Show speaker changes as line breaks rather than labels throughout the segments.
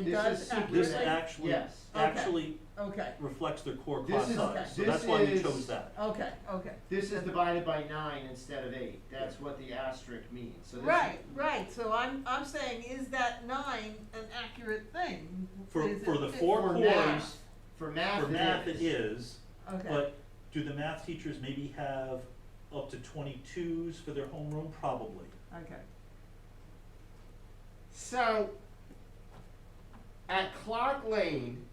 It
This
does
is-
accurately?
This actually,
Yes.
Okay.
actually
Okay,
reflects their core
This
class
is-
size, so
this
that's why we
is-
chose that.
okay, okay.
This is divided by nine instead of eight, that's what the asterisk means, so this is.
Right, right, so I'm, I'm saying, is that nine an accurate thing?
For,
Is
for
it-
the
it-
four
For
cores,
math. For math,
for
it
math
is.
it is,
Okay,
but do the math teachers maybe have up to twenty-twos for their homeroom? Probably.
okay.
So, at Clark Lane,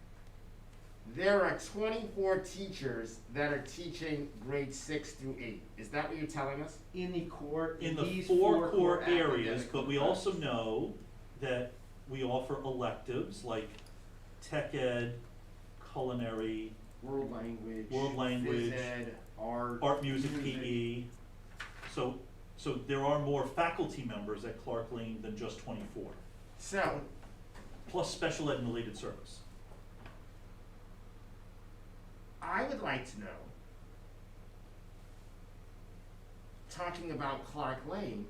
there are twenty-four teachers that are teaching grade six through eight. Is that what you're telling us?
In the core,
In
in
the
these
four core
academic
areas, but we
groups.
also know that we offer electives like tech ed, culinary,
World language.
World language,
Phys ed, art.
art, music,
Music.
PE. So, so there are more faculty members at Clark Lane than just twenty-four,
So,
plus special ed and related service.
I would like to know, talking about Clark Lane,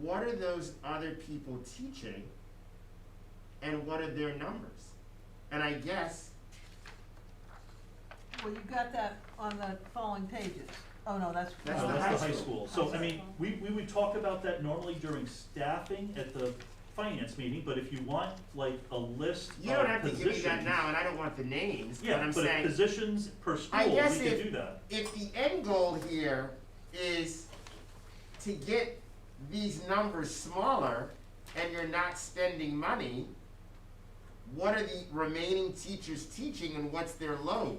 what are those other people teaching and what are their numbers? And I guess,
Well, you got that on the following pages. Oh, no, that's.
That's
No,
the high school.
So, I mean, we, we would talk about that normally during staffing at the finance meeting, but if you want like a list of Oh, positions.
you don't have to give me that now and I don't want the names, but
Yeah,
I'm saying.
but if positions per school, we
guess
could
if-
do that.
if the end goal here is to get these numbers smaller and you're not spending money, what are the remaining teachers teaching and what's their load?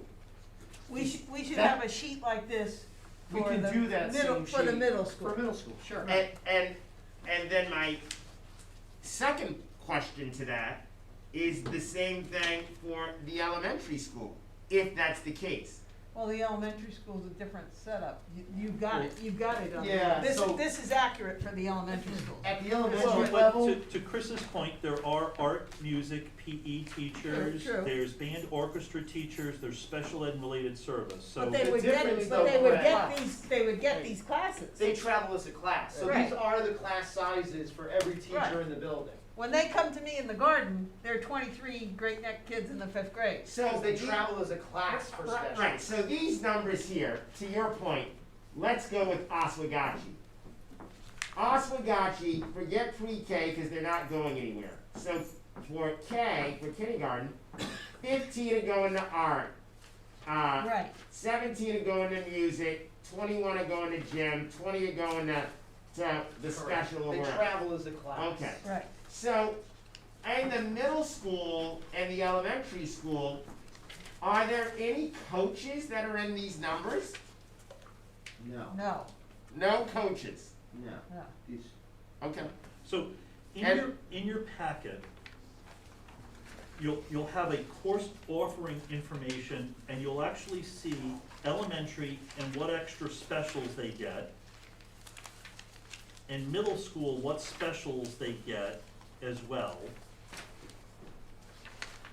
We should, we should
That-
have a sheet like this
We
for
can
the
do that
middle,
same
for the
sheet
middle school.
For middle school, sure.
And, and, and then my second question to that is the same thing for the elementary school, if that's the case.
Well, the elementary school's a different setup. You, you've got it, you've got it on.
Yeah,
This,
so-
this is accurate for the elementary school.
At the
Well,
elementary
But
level,
To, to Chris's point, there are art, music, PE teachers,
True, true.
there's band orchestra teachers, there's special ed and related service, so.
But they
The
would get,
difference,
but they
though,
would
right.
get these, they would get these classes.
they travel as a class, so
Right.
these are the class sizes for every teacher
Right.
in the building.
When they come to me in the garden, there are twenty-three great neck kids in the fifth grade.
So
Because they
the-
travel as a class for
Right,
special.
Right, so these numbers here, to your point, let's go with Oswegatchie. Oswegatchie, forget pre-K, cause they're not going anywhere. So for K, for kindergarten, fifteen are going to art. Uh,
Right,
seventeen are going to music, twenty-one are going to gym, twenty are going to, to the
Correct.
special or
They
whatever.
travel as a class.
Okay.
right.
So, in the middle school and the elementary school, are there any coaches that are in these numbers?
No,
No,
No coaches.
no,
no.
these,
Okay.
So, in
And-
your, in your packet, you'll, you'll have a course offering information, and you'll actually see elementary and what extra specials they get. And middle school, what specials they get as well,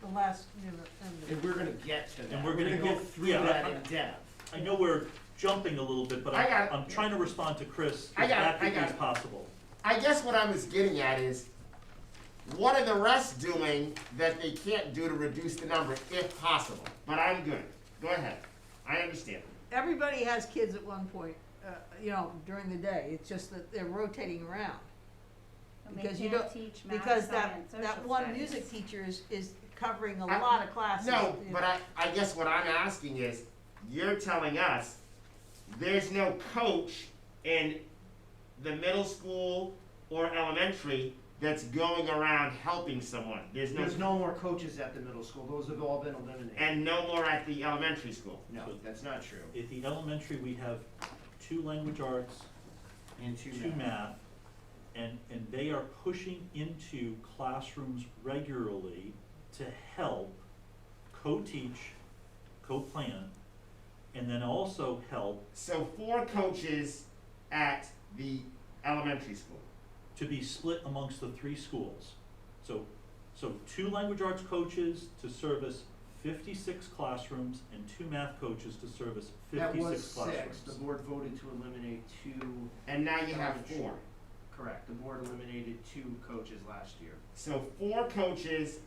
The last, you know, and
and we're gonna get to that.
and we're gonna
go
get,
through that in
yeah,
depth.
I, I know we're jumping a little bit, but
I got
I'm,
it.
I'm trying to respond to Chris
I
as
got it, I
accurately
got
as
it.
possible.
I guess what I was getting at is, what are the rest doing that they can't do to reduce the number, if possible? But I'm good. Go ahead. I understand.
everybody has kids at one point, uh, you know, during the day. It's just that they're rotating around.
And they
Because you
can't
don't-
teach math,
Because that,
science,
that
social
one
studies.
music teacher is, is covering a
I-
lot of classes.
No,
you
but
know.
I, I guess what I'm asking is, you're telling us there's no coach in the middle school or elementary that's going around helping someone. There's no,
There's no more coaches at the middle school, those have all been eliminated.
and no more at the elementary school.
No, that's not true.
At the elementary, we have two language arts,
And two
to
math.
math, and, and they are pushing into classrooms regularly to help co-teach, co-plan, and then also help
So four coaches at the elementary school.
to be split amongst the three schools. So, so two language arts coaches to service fifty-six classrooms and two math coaches to service fifty-six
That was
classrooms.
six, the board voted to eliminate two
And now you have four.
Correct, the board eliminated two coaches last year.
So four coaches